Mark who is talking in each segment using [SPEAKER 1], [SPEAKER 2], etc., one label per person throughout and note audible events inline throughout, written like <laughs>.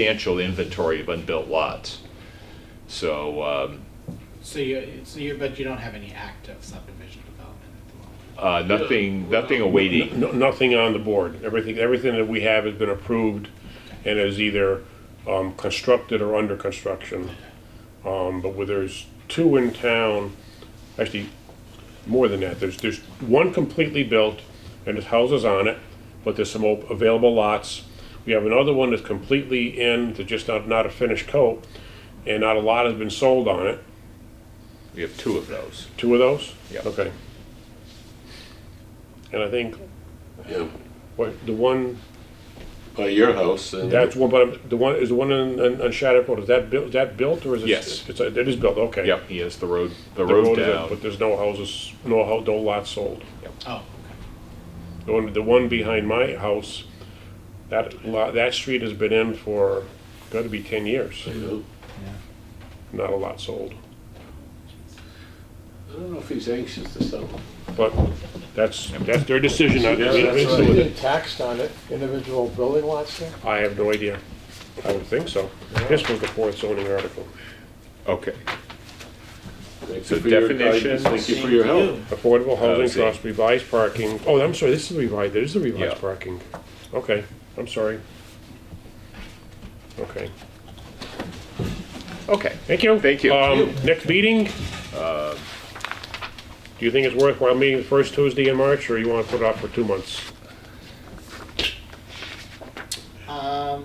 [SPEAKER 1] substantial inventory of unbuilt lots. So, um,
[SPEAKER 2] So you, so you, but you don't have any active subdivision development at the moment?
[SPEAKER 1] uh, nothing, nothing awaiting.
[SPEAKER 3] No- Nothing on the board. Everything, everything that we have has been approved and is either um, constructed or under construction. Um, But where there's two in town, actually, more than that, there's, there's one completely built and there's houses on it, but there's some op- available lots. We have another one that's completely in, that's just not, not a finished coat, and not a lot has been sold on it.
[SPEAKER 1] We have two of those.
[SPEAKER 3] Two of those?
[SPEAKER 1] Yeah.
[SPEAKER 3] Okay. And I think, what, the one,
[SPEAKER 4] by your house and
[SPEAKER 3] that's one, but um, the one, is the one in, in, on Shattuck Road, is that built, is that built or is it?
[SPEAKER 1] Yes.
[SPEAKER 3] It's, it is built, okay.
[SPEAKER 1] Yep, he has the road, the
[SPEAKER 3] The
[SPEAKER 1] road
[SPEAKER 3] is up,
[SPEAKER 1] down.
[SPEAKER 3] But there's no houses, no, hou- no lots sold.
[SPEAKER 2] Oh,
[SPEAKER 3] The one, the one behind my house, that lot, that street has been in for, gotta be ten years,
[SPEAKER 4] I don't
[SPEAKER 3] not a lot sold.
[SPEAKER 4] I don't know if he's anxious to sell.
[SPEAKER 3] But that's, that's their decision, I,
[SPEAKER 5] So you get taxed on it, individual building lots there?
[SPEAKER 3] I have no idea. I would think so. This was the fourth zoning article,
[SPEAKER 1] Okay.
[SPEAKER 4] Thank
[SPEAKER 1] So
[SPEAKER 4] you for your
[SPEAKER 1] definitions-
[SPEAKER 4] guidance. Thank you for your help.
[SPEAKER 3] affordable
[SPEAKER 1] Oh, I
[SPEAKER 3] housing
[SPEAKER 1] see.
[SPEAKER 3] trust revised parking, oh, I'm sorry, this is revised, there's the
[SPEAKER 1] Yeah.
[SPEAKER 3] revised parking. Okay, I'm sorry. Okay,
[SPEAKER 1] Okay.
[SPEAKER 3] thank you.
[SPEAKER 1] Thank you.
[SPEAKER 3] Um, next meeting? Do you think it's worthwhile meeting the first Tuesday in March, or you wanna put it off for two months?
[SPEAKER 2] okay. Um,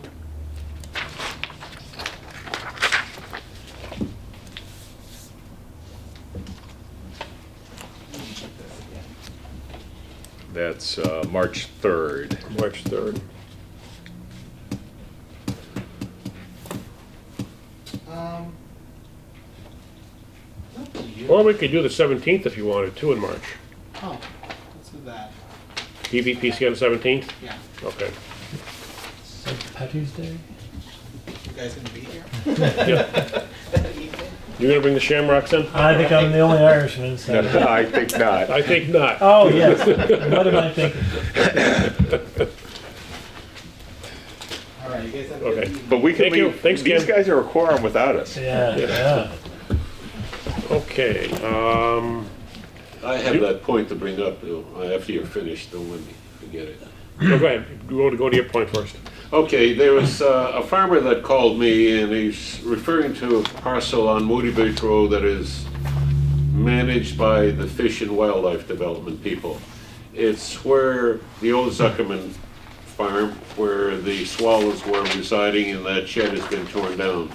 [SPEAKER 1] That's, uh, March third. <laughs>
[SPEAKER 3] March third.
[SPEAKER 2] um, up to you.
[SPEAKER 3] Or we could do the seventeenth if you wanted to in March. E
[SPEAKER 2] Oh, let's do that,
[SPEAKER 3] PVPC on the seventeenth?
[SPEAKER 2] yeah.
[SPEAKER 3] Okay.
[SPEAKER 6] St. Patty's Day?
[SPEAKER 2] You guys gonna be here?
[SPEAKER 3] You're gonna bring the shamrocks in?
[SPEAKER 6] I think I'm the only
[SPEAKER 1] <laughs>
[SPEAKER 6] Irishman, so.
[SPEAKER 1] I think not.
[SPEAKER 3] I think not.
[SPEAKER 6] Oh, yes. What am I thinking?
[SPEAKER 2] All right, you guys have a good
[SPEAKER 3] Okay.
[SPEAKER 2] evening.
[SPEAKER 1] But we can
[SPEAKER 3] Thank you.
[SPEAKER 1] leave,
[SPEAKER 3] Thanks,
[SPEAKER 1] these
[SPEAKER 3] Ken.
[SPEAKER 1] guys are a quorum without us.
[SPEAKER 6] Yeah, yeah.
[SPEAKER 3] Okay, um,
[SPEAKER 4] I have that point to bring up though, after you're finished, don't let me forget it.
[SPEAKER 3] no, go ahead, go to, go to your point first.
[SPEAKER 4] Okay, there was uh, a farmer that called me and he's referring to a parcel on Moody Beach Road that is managed by the Fish and Wildlife Development people. It's where the old Zuckerman farm, where the swallows were residing and that shed has been torn down.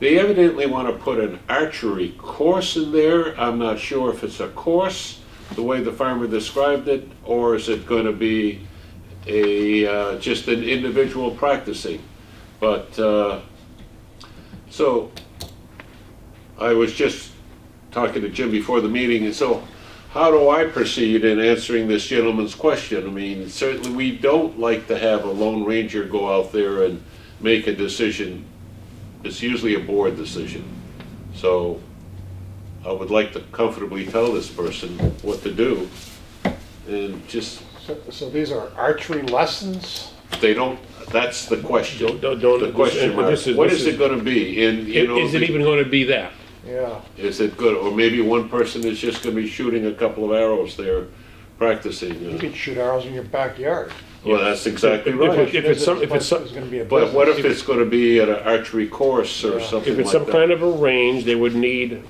[SPEAKER 4] They evidently want to put an archery course in there. I'm not sure if it's a course, the way the farmer described it, or is it going to be a, uh, just an individual practicing. But, uh, so, I was just talking to Jim before the meeting, and so how do I proceed in answering this gentleman's question? I mean, certainly, we don't like to have a lone ranger go out there and make a decision. It's usually a board decision. So, I would like to comfortably tell this person what to do, and just
[SPEAKER 5] So, so these are archery lessons?
[SPEAKER 4] they don't, that's the question.
[SPEAKER 3] Don't- don't- don't-
[SPEAKER 4] The question
[SPEAKER 3] and- and
[SPEAKER 4] mark.
[SPEAKER 3] this is-
[SPEAKER 4] What
[SPEAKER 3] this
[SPEAKER 4] is
[SPEAKER 3] is-
[SPEAKER 4] it gonna be? And, you know.
[SPEAKER 3] Is it even gonna be that?
[SPEAKER 5] Yeah.
[SPEAKER 4] Is it good, or maybe one person is just gonna be shooting a couple of arrows there,
[SPEAKER 5] You
[SPEAKER 4] practicing. uh,
[SPEAKER 5] can shoot arrows in your backyard.
[SPEAKER 4] Well, that's exactly
[SPEAKER 3] If- if-
[SPEAKER 4] right.
[SPEAKER 3] if- it's some- if it's some-
[SPEAKER 5] There's gonna be a
[SPEAKER 4] But what if
[SPEAKER 5] business.
[SPEAKER 4] it's gonna be at an archery course or something
[SPEAKER 3] If it's
[SPEAKER 4] like
[SPEAKER 3] some kind
[SPEAKER 4] that?
[SPEAKER 3] of a range, they would need,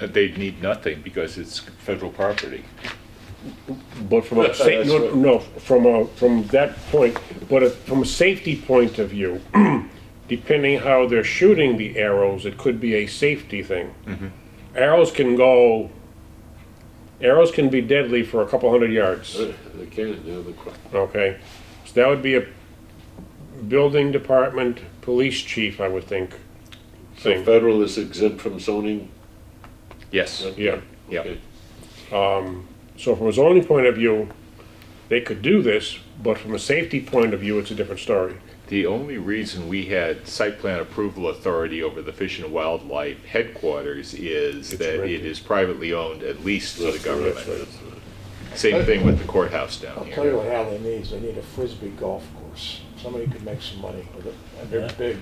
[SPEAKER 1] Uh, They'd need nothing because it's federal property.
[SPEAKER 3] but from a, sa-
[SPEAKER 4] That's
[SPEAKER 3] no,
[SPEAKER 4] right.
[SPEAKER 3] no, from a, from that point, but if- from a safety point of view, <clears throat> depending how they're shooting the arrows, it could be a safety thing.
[SPEAKER 4] Mm-hmm.
[SPEAKER 3] Arrows can go, arrows can be deadly for a couple hundred yards.
[SPEAKER 4] Uh, They can, yeah, the qu-
[SPEAKER 3] Okay, so that would be a building department, police chief, I would think,
[SPEAKER 4] So
[SPEAKER 3] thing,
[SPEAKER 4] federal is exempt from zoning?
[SPEAKER 1] Yes,
[SPEAKER 3] yeah.
[SPEAKER 1] yeah.
[SPEAKER 4] Okay.
[SPEAKER 3] So from a zoning point of view, they could do this, but from a safety point of view, it's a different story.
[SPEAKER 1] The only reason we had site plan approval authority over the Fish and Wildlife headquarters is
[SPEAKER 3] It's
[SPEAKER 1] that it
[SPEAKER 3] rented.
[SPEAKER 1] is privately owned, at least to the
[SPEAKER 4] That's right, that's
[SPEAKER 1] government. Same thing with the courthouse down
[SPEAKER 5] I'll
[SPEAKER 1] here.
[SPEAKER 5] tell you what Hadley needs, they need a frisbee golf course. somebody could make some money with it. They're
[SPEAKER 6] Yeah.
[SPEAKER 5] big.